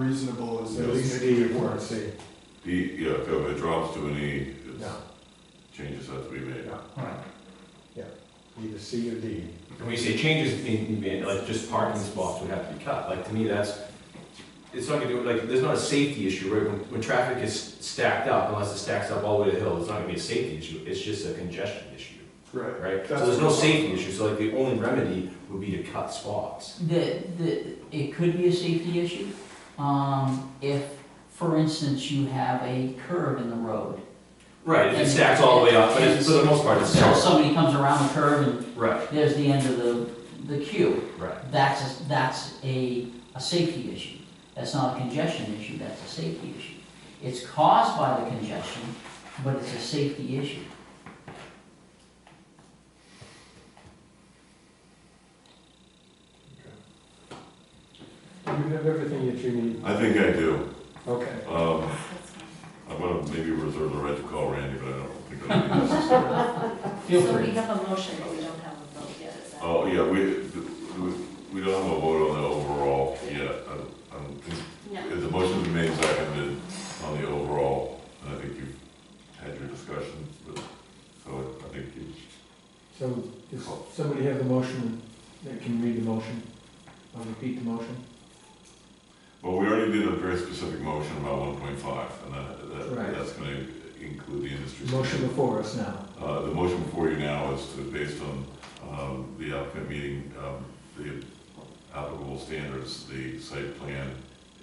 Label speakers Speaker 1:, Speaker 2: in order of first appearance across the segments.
Speaker 1: unreasonable as
Speaker 2: At
Speaker 1: those
Speaker 2: least
Speaker 1: may be
Speaker 2: D,
Speaker 1: at
Speaker 2: or
Speaker 1: worst.
Speaker 2: C.
Speaker 3: E, yeah, if it drops to an E, it's,
Speaker 2: No,
Speaker 3: changes have to be made.
Speaker 2: no,
Speaker 4: Alright.
Speaker 2: either C or D.
Speaker 5: When we say changes need to be made, like just parking spots would have to be cut, like to me, that's, it's not gonna do, like, there's not a safety issue, right? When, when traffic is stacked up, unless it stacks up all the way to the hill, it's not gonna be a safety issue, it's just a congestion issue,
Speaker 1: Right.
Speaker 5: right? So
Speaker 1: That's
Speaker 5: there's no
Speaker 1: what-
Speaker 5: safety issue, so like the only remedy would be to cut spots.
Speaker 6: The, the, it could be a safety issue. Um, if, for instance, you have a curve in the road.
Speaker 5: Right, if it
Speaker 6: And-
Speaker 5: stacks all the way up, but it's, for the most part, it's
Speaker 6: So
Speaker 5: stacks.
Speaker 6: somebody comes around the curve and
Speaker 5: Right,
Speaker 6: there's the end of the, the queue.
Speaker 5: right.
Speaker 6: That's, a- that's a, a safety issue. That's not a congestion issue, that's a safety issue. It's caused by the congestion, but it's a safety issue.
Speaker 2: You have everything that you need.
Speaker 3: I think I do.
Speaker 2: Okay.
Speaker 3: Um, I'm gonna maybe reserve the right to call Randy, but I don't think that'll be necessary.
Speaker 6: Feel
Speaker 7: So we
Speaker 6: free.
Speaker 7: have a motion, but we don't have a vote yet, is that?
Speaker 3: Oh, yeah, we, we- we don't have a vote on the overall yet. I, I don't think,
Speaker 7: No.
Speaker 3: if the motion's been made, seconded on the overall, and I think you've had your discussion, but, so I think you
Speaker 2: So does somebody have the motion that can read the motion? Or repeat the motion?
Speaker 3: Well, we already did a very specific motion about one point five, and that,
Speaker 2: Right.
Speaker 3: that, that's gonna include the industry.
Speaker 2: Motion before us now.
Speaker 3: Uh, the motion before you now is to, based on, um, the applicant meeting, um, the applicable standards, the site plan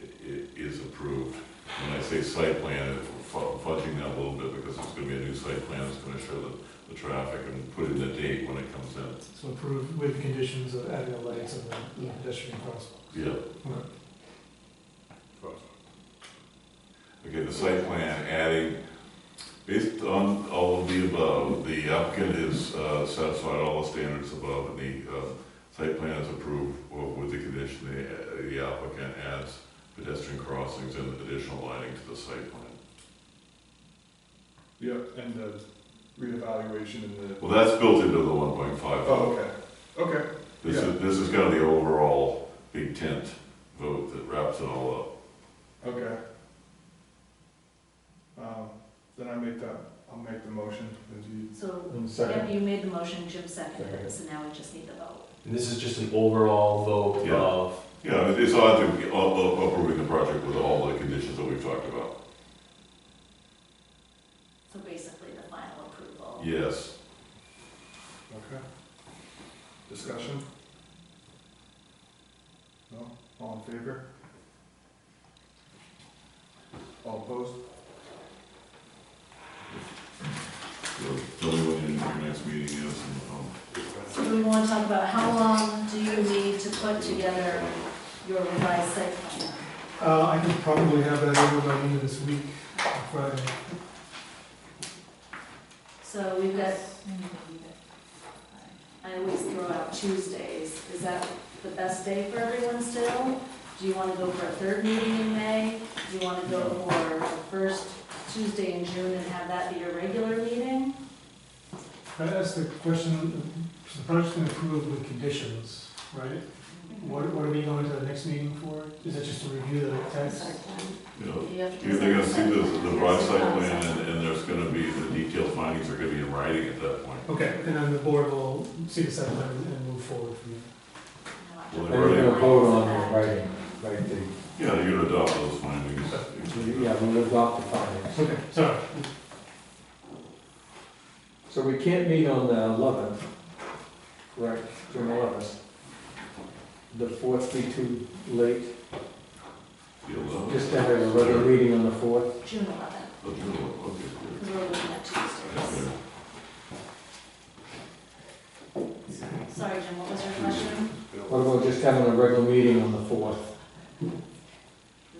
Speaker 3: i- i- is approved. When I say site plan, it's fu- fudging that a little bit, because it's gonna be a new site plan, it's gonna show the, the traffic and put in the date when it comes in.
Speaker 4: So approve with conditions of adding the lights and the pedestrian crosswalk.
Speaker 3: Yeah. Okay, the site plan adding, based on all of the above, the applicant is uh, satisfied all the standards above, and the uh, site plan is approved well, with the condition the uh, the applicant adds pedestrian crossings and additional lighting to the site plan.
Speaker 1: Yep, and the reevaluation and the,
Speaker 3: Well, that's built into the one point five
Speaker 1: oh,
Speaker 3: vote.
Speaker 1: okay, okay.
Speaker 3: This is, this is kind of the overall big tent vote that wraps it all up.
Speaker 1: Okay. Um, Then I make that, I'll make the motion, if you,
Speaker 7: So,
Speaker 2: And
Speaker 7: yeah,
Speaker 2: second,
Speaker 7: you made the motion, Jim seconded it, so now we just need the vote.
Speaker 5: And this is just an overall vote
Speaker 3: Yeah.
Speaker 5: of,
Speaker 3: Yeah, it's odd to be up- up- approving uh, the project with all the conditions that we've talked about.
Speaker 7: So basically the final approval.
Speaker 3: Yes.
Speaker 1: okay. Discussion? No, all in favor? All opposed?
Speaker 3: Tell me when your next meeting is and um,
Speaker 7: So we want to talk about how long do you need to put together your revised site plan?
Speaker 4: Uh, I could probably have that over by the end of this week, on Friday.
Speaker 7: So we've got, I always throw out Tuesdays. Is that the best day for everyone still? Do you want to go for a third meeting in May? Do you want to go for the first Tuesday in June and have that be your regular meeting?
Speaker 4: Can I ask the question, the project's been approved with conditions, right? What, what are we going to the next meeting for? Is it just to review the text?
Speaker 3: you know,
Speaker 7: You have to
Speaker 3: you're, they're gonna see the, the broad site plan
Speaker 7: Site
Speaker 3: and, and there's gonna be, the detailed findings are gonna be in writing at that point.
Speaker 4: Okay, and then the board will see the site plan and move forward from there.
Speaker 2: and
Speaker 3: Well, they've
Speaker 2: we're
Speaker 3: already,
Speaker 2: gonna vote on the writing, right, the,
Speaker 3: yeah, you're gonna adopt those findings.
Speaker 2: yeah, we'll adopt the findings.
Speaker 4: Okay, sorry.
Speaker 2: So we can't meet on the eleventh, correct, June eleventh. The fourth be too late,
Speaker 3: You'll know.
Speaker 2: just to have a regular meeting on the fourth.
Speaker 7: June eleventh,
Speaker 3: Oh, you'll know. Okay, good.
Speaker 7: because we're looking at
Speaker 3: Yeah,
Speaker 7: Tuesdays.
Speaker 3: yeah.
Speaker 7: Sorry, Jim, what was your question?
Speaker 2: What about just having a regular meeting on the fourth?
Speaker 7: Does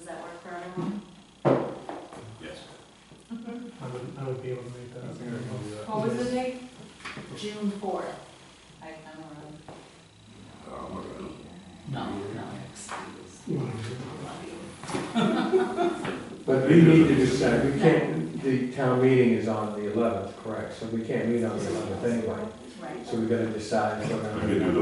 Speaker 7: that work for everyone?
Speaker 3: Yes.
Speaker 4: I would, I would be able to make
Speaker 1: I
Speaker 4: that.
Speaker 1: think I can do that.
Speaker 4: What was the
Speaker 7: date? June fourth. I, I'm around.
Speaker 3: Oh, my God.
Speaker 6: No, no.
Speaker 2: But we need to decide, we can't, the town meeting is on the eleventh, correct, so we can't meet on the eleventh anyway.
Speaker 7: Right.
Speaker 2: So we gotta decide if we're
Speaker 3: I
Speaker 2: gonna.
Speaker 3: can do